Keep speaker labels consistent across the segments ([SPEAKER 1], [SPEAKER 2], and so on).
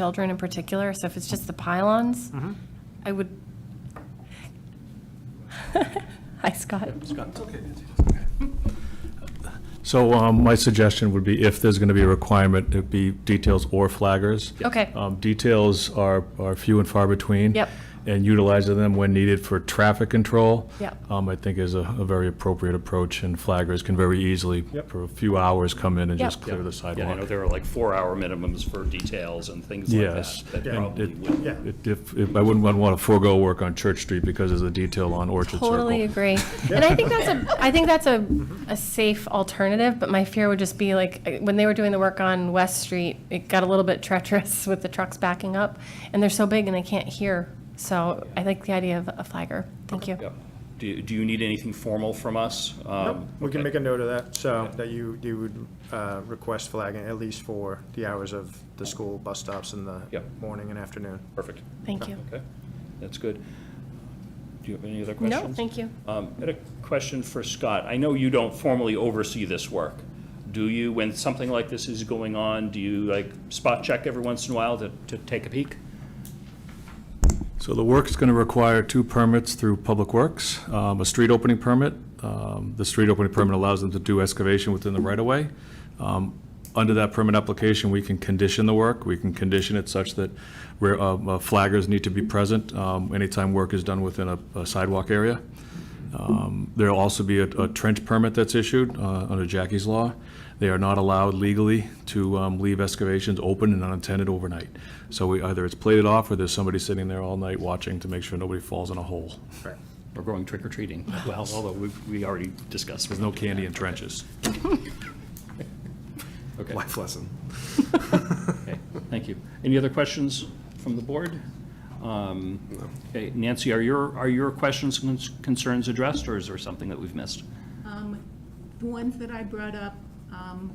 [SPEAKER 1] children in particular, so if it's just the pylons,
[SPEAKER 2] Mm-hmm.
[SPEAKER 1] I would. Hi, Scott.
[SPEAKER 3] So um, my suggestion would be if there's going to be a requirement, it'd be details or flaggers.
[SPEAKER 1] Okay.
[SPEAKER 3] Um, Details are, are few and far between.
[SPEAKER 1] Yep.
[SPEAKER 3] And utilizing them when needed for traffic control.
[SPEAKER 1] Yep.
[SPEAKER 3] um, I think is a, a very appropriate approach, and flaggers can very easily,
[SPEAKER 4] Yep.
[SPEAKER 3] for a few hours, come in and
[SPEAKER 1] Yep.
[SPEAKER 3] just clear the
[SPEAKER 2] Yeah, I know
[SPEAKER 3] sidewalk.
[SPEAKER 2] there are like four-hour minimums for details and things like
[SPEAKER 3] Yes.
[SPEAKER 2] that. That
[SPEAKER 3] and
[SPEAKER 2] probably
[SPEAKER 3] it-
[SPEAKER 2] would.
[SPEAKER 4] Yeah.
[SPEAKER 3] it- If, if, I wouldn't want to forego work on Church Street because there's a detail on Orchard Circle.
[SPEAKER 1] Totally agree. And I think that's a, I think that's a,
[SPEAKER 2] Mm-hmm.
[SPEAKER 1] a safe alternative, but my fear would just be like, uh, when they were doing the work on West Street, it got a little bit treacherous with the trucks backing up, and they're so big and they can't hear. So I like the idea of a flagger. Thank you.
[SPEAKER 2] Yep. Do, you- do you need anything formal from us?
[SPEAKER 4] Nope,
[SPEAKER 2] Um,
[SPEAKER 4] We can
[SPEAKER 2] okay.
[SPEAKER 4] make a note of that, so that you, you would uh, request flagging at least for the hours of the school bus stops in the
[SPEAKER 2] Yep.
[SPEAKER 4] morning and afternoon.
[SPEAKER 2] Perfect.
[SPEAKER 1] Thank you.
[SPEAKER 2] Okay, that's good. Do you have any other questions?
[SPEAKER 1] No, thank you.
[SPEAKER 2] Um, I had a question for Scott. I know you don't formally oversee this work. Do you, when something like this is going on, do you like spot check every once in a while to, to take a peek?
[SPEAKER 3] So the work's going to require two permits through Public Works, um, a street opening permit. Um, The street opening permit allows them to do excavation within the right-of-way. Um, Under that permit application, we can condition the work. We can condition it such that where uh, uh, flaggers need to be present um, anytime work is done within a a sidewalk area. Um, There'll also be a a trench permit that's issued uh, under Jackie's Law. They are not allowed legally to um, leave excavations open and unattended overnight. So we, either it's plated off, or there's somebody sitting there all night watching to make sure nobody falls in a hole.
[SPEAKER 2] We're going trick or treating. Well, although we, we already discussed.
[SPEAKER 3] There's no candy in trenches.
[SPEAKER 2] Okay.
[SPEAKER 4] Life lesson.
[SPEAKER 2] Okay, thank you. Any other questions from the board? Um, Okay, Nancy, are your, are your questions and concerns addressed, or is there something that we've missed?
[SPEAKER 5] Um, The ones that I brought up um,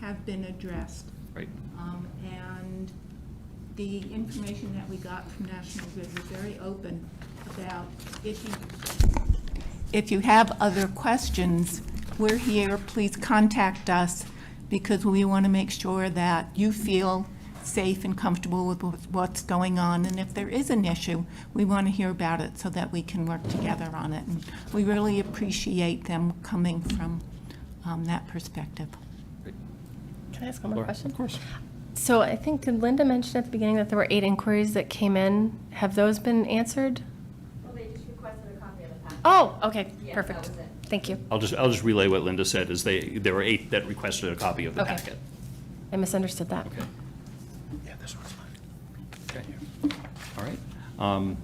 [SPEAKER 5] have been addressed.
[SPEAKER 2] Right,
[SPEAKER 5] Um, And the information that we got from National Grid was very open about if you, if you have other questions, we're here, please contact us, because we want to make sure that you feel safe and comfortable with what's- what's going on, and if there is an issue, we want to hear about it so that we can work together on it. And We really appreciate them coming from um, that perspective.
[SPEAKER 1] Can I ask one more question?
[SPEAKER 2] Of course.
[SPEAKER 1] So I think, did Linda mention at the beginning that there were eight inquiries that came in? Have those been answered?
[SPEAKER 6] Well, they just requested a copy of the packet.
[SPEAKER 1] Oh, okay,
[SPEAKER 6] Yeah, that
[SPEAKER 1] perfect.
[SPEAKER 6] was it.
[SPEAKER 1] Thank you.
[SPEAKER 2] I'll just, I'll just relay what Linda said, is they, there were eight that requested a copy of the
[SPEAKER 1] Okay.
[SPEAKER 2] packet.
[SPEAKER 1] I misunderstood that.
[SPEAKER 2] Okay,
[SPEAKER 4] Yeah, this one's mine.
[SPEAKER 2] okay, all right. Um,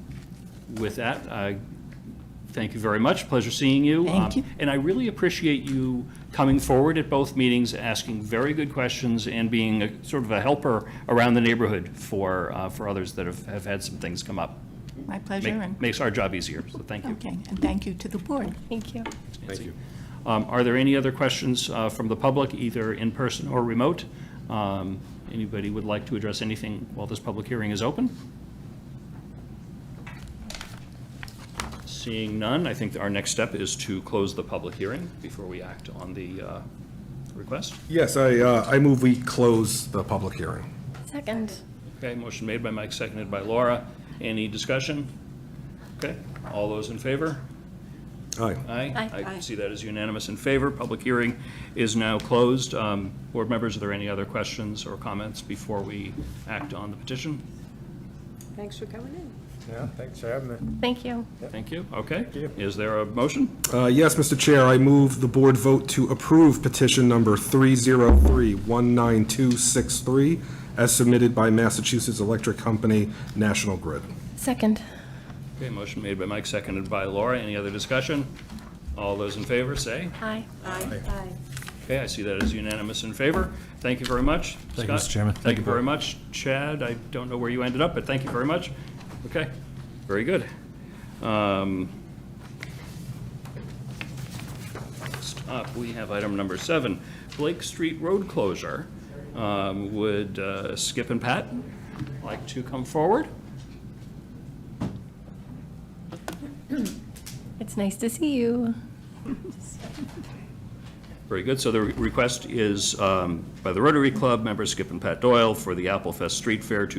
[SPEAKER 2] With that, I thank you very much, pleasure seeing you.
[SPEAKER 5] Thank
[SPEAKER 2] Um,
[SPEAKER 5] you.
[SPEAKER 2] And I really appreciate you coming forward at both meetings, asking very good questions, and being a- sort of a helper around the neighborhood for, uh, for others that have, have had some things come up.
[SPEAKER 5] My pleasure,
[SPEAKER 2] Make-
[SPEAKER 5] and,
[SPEAKER 2] Makes our job easier, so thank you.
[SPEAKER 5] okay, and thank you to the board.
[SPEAKER 1] Thank you.
[SPEAKER 2] Thank you. Um, Are there any other questions uh, from the public, either in person or remote? Um, Anybody would like to address anything while this public hearing is open? Seeing none, I think our next step is to close the public hearing before we act on the uh, request.
[SPEAKER 7] Yes, I, uh, I move we close the public hearing.
[SPEAKER 1] Second.
[SPEAKER 2] Okay, motion made by Mike, seconded by Laura. Any discussion? Okay, all those in favor?
[SPEAKER 7] Aye.
[SPEAKER 2] Aye.
[SPEAKER 1] Aye.
[SPEAKER 2] I see that as unanimous in favor. Public hearing is now closed. Um, Board members, are there any other questions or comments before we act on the petition?
[SPEAKER 8] Thanks for coming in.
[SPEAKER 4] Yeah, thanks for having me.
[SPEAKER 1] Thank you.
[SPEAKER 2] Thank you. Okay. Is there a motion?
[SPEAKER 7] Uh, Yes, Mr. Chair, I move the board vote to approve petition number 303-19263 as submitted by Massachusetts Electric Company, National Grid.
[SPEAKER 1] Second.
[SPEAKER 2] Okay, motion made by Mike, seconded by Laura. Any other discussion? All those in favor, say.
[SPEAKER 1] Aye.
[SPEAKER 2] Okay, I see that as unanimous in favor. Thank you very much.
[SPEAKER 3] Thank you, Mr.
[SPEAKER 2] Scott,
[SPEAKER 3] Chairman.
[SPEAKER 2] Thank
[SPEAKER 3] Thank
[SPEAKER 2] you
[SPEAKER 3] you,
[SPEAKER 2] very
[SPEAKER 3] Bob.
[SPEAKER 2] much. Chad, I don't know where you ended up, but thank you very much. Okay, very good. Um, Next up, we have item number seven, Blake Street Road Closure. Um, Would uh, Skip and Pat like to come forward?
[SPEAKER 1] It's nice to see you.
[SPEAKER 2] Very good. So the re- request is um, by the Rotary Club members Skip and Pat Doyle for the Apple Fest Street Fair to